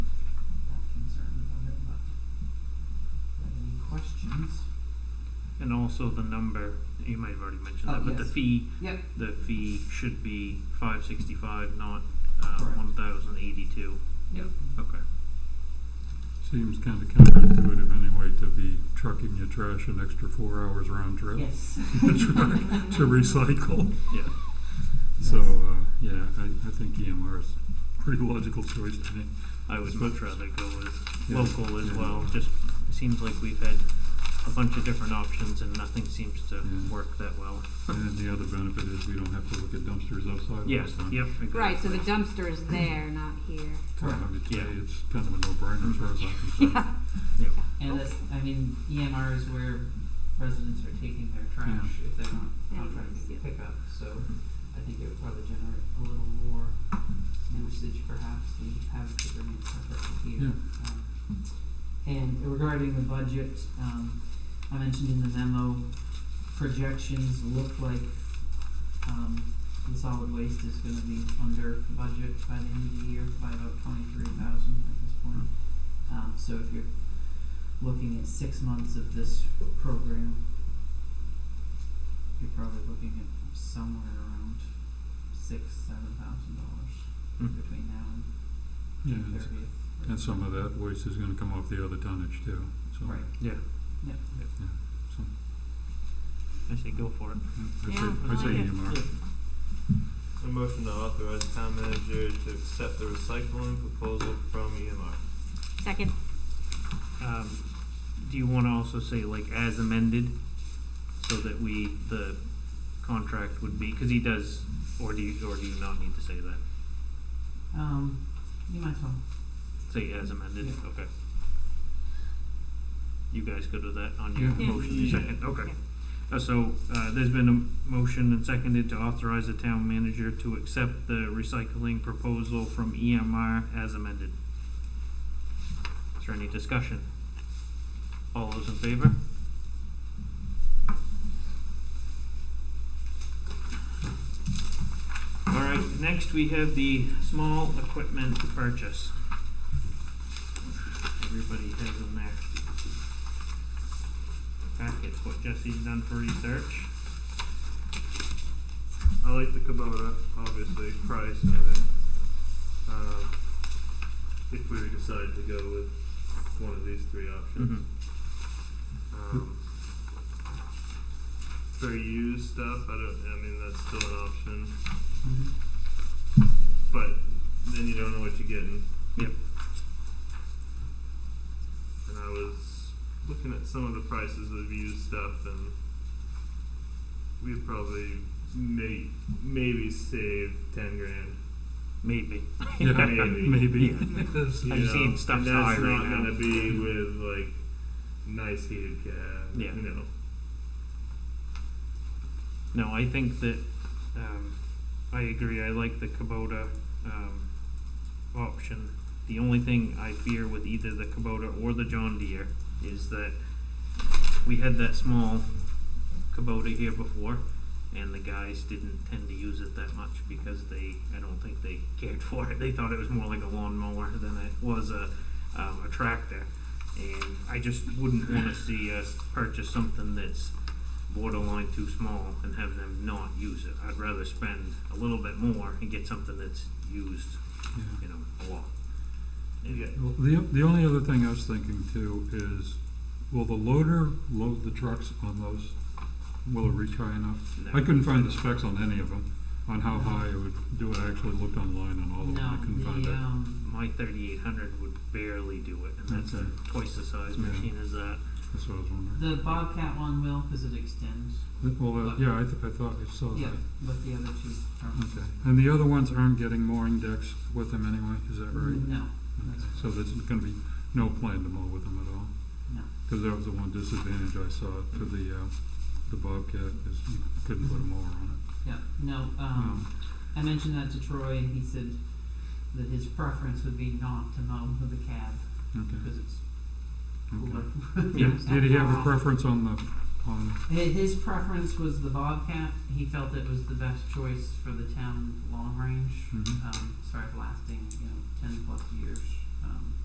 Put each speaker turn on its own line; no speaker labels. also the number, you might have already mentioned
Oh,
that, but the
yes.
fee,
Yep.
the fee should be five sixty-five, not, uh,
Correct.
one thousand eighty-two.
Yep.
Okay.
Seems kind of counterintuitive anyway to be trucking your trash an extra four hours round trip
Yes.
to recycle.
Yeah.
So, uh, yeah, I, I think EMR is a pretty logical choice to me.
I would much rather go with
Yeah.
local as
Yeah.
well. Just it seems like we've had a bunch of different options and nothing seems to
Yeah.
work that well.
And the other benefit is we don't have to look at dumpsters outside all
Yes.
the time.
Yep.
Right, so the
exactly.
dumpster is there, not here.
So I would say
Yeah.
it's kind of a no-brainer as far as I'm concerned.
Yep.
And that's, I mean, EMR is where residents are taking their trash if they're not
Yeah,
contracting
yeah.
to pick up. So I think it would probably generate a little more usage perhaps than having to bring in stuff up here. Um, And regarding the budget, um, I mentioned in the memo, projections look like, um, the solid waste is gonna be under budget by the end of the year by about twenty-three thousand at this point. Um, so if you're looking at six months of this program, you're probably looking at somewhere around six, seven thousand dollars
Mm.
between now
Yeah,
and
it's-
thirtieth.
and some of that waste is gonna come off the other tonnage too, so.
Right,
Yeah.
yeah.
so,
I say go for it.
I
Yeah,
say,
I
I say E
like it.
EMR.
A motion to authorize town manager to accept the recycling proposal from EMR.
Second.
Um, do you want to also say like as amended, so that we the contract would be because he does, or do you or do you not need to say that?
Um, you might as well.
Say as amended.
Yeah.
Okay. You guys good with that on your
Yeah.
Yeah.
motion
Yeah.
second? Okay.
Yeah.
Uh, so uh, there's been a motion and seconded to authorize the town manager to accept the recycling proposal from EMR as amended. Is there any discussion? All those in favor? All right, next we have the small equipment purchase. Everybody has in their packets what Jesse's done for research.
I like the Kubota, obviously, price and everything. Um, if we decide to go with one of these three options. Um, for used stuff, I don't, I mean, that's still an option, but then you don't know what you're getting.
Yep.
And I was looking at some of the prices of used stuff, and we'd probably may maybe save ten grand.
Maybe.
Yeah,
Maybe.
maybe.
you
I've seen stuff's
and that's
high right
not
now.
gonna be with like nice heated cab.
Yeah.
You know.
No, I think that um, I agree. I like the Kubota um, option. The only thing I fear with either the Kubota or the John Deere is that we had that small Kubota here before, and the guys didn't tend to use it that much because they, I don't think they cared for it. They thought it was more like a lawnmower than it was a, um, a tractor. And I just wouldn't want to see us purchase something that's borderline too small and have them not use it. I'd rather spend a little bit more and get something that's used,
Yeah.
you know, a lot. And-
Yeah.
Well, The, the only other thing I was thinking too is, will the loader load the trucks on those? Will it reach high enough?
No.
I couldn't find the specs on any of them, on how high it would do it. I actually looked online on all of them, I couldn't
No,
find
the,
it.
um,
My thirty-eight hundred would barely do it, and that's a
Okay.
twice the size
Yeah.
machine as that.
That's what I was wondering.
the Bobcat one will, cause it extends,
Th- Well, uh, yeah, I, th- I thought I saw
yeah,
that.
but the other two aren't.
Okay. And the other ones aren't getting mooring decks with them anyway, is that right?
No,
Okay. So there's gonna be no plan to mow with them at all?
no.
Because that was the one disadvantage I saw to the, uh, the Bobcat, is you couldn't put a mower on it.
Yeah, no, um, I mentioned that to Troy and he said that his preference would be not to mow with the cab
Okay,
because it's cooler.
okay.
Yeah.
Did he have a preference on the, on,
Hi- His preference was the Bobcat. He felt it was the best choice for the town long range,
Mhm.
um, sorry, lasting, you know, ten plus years. Um,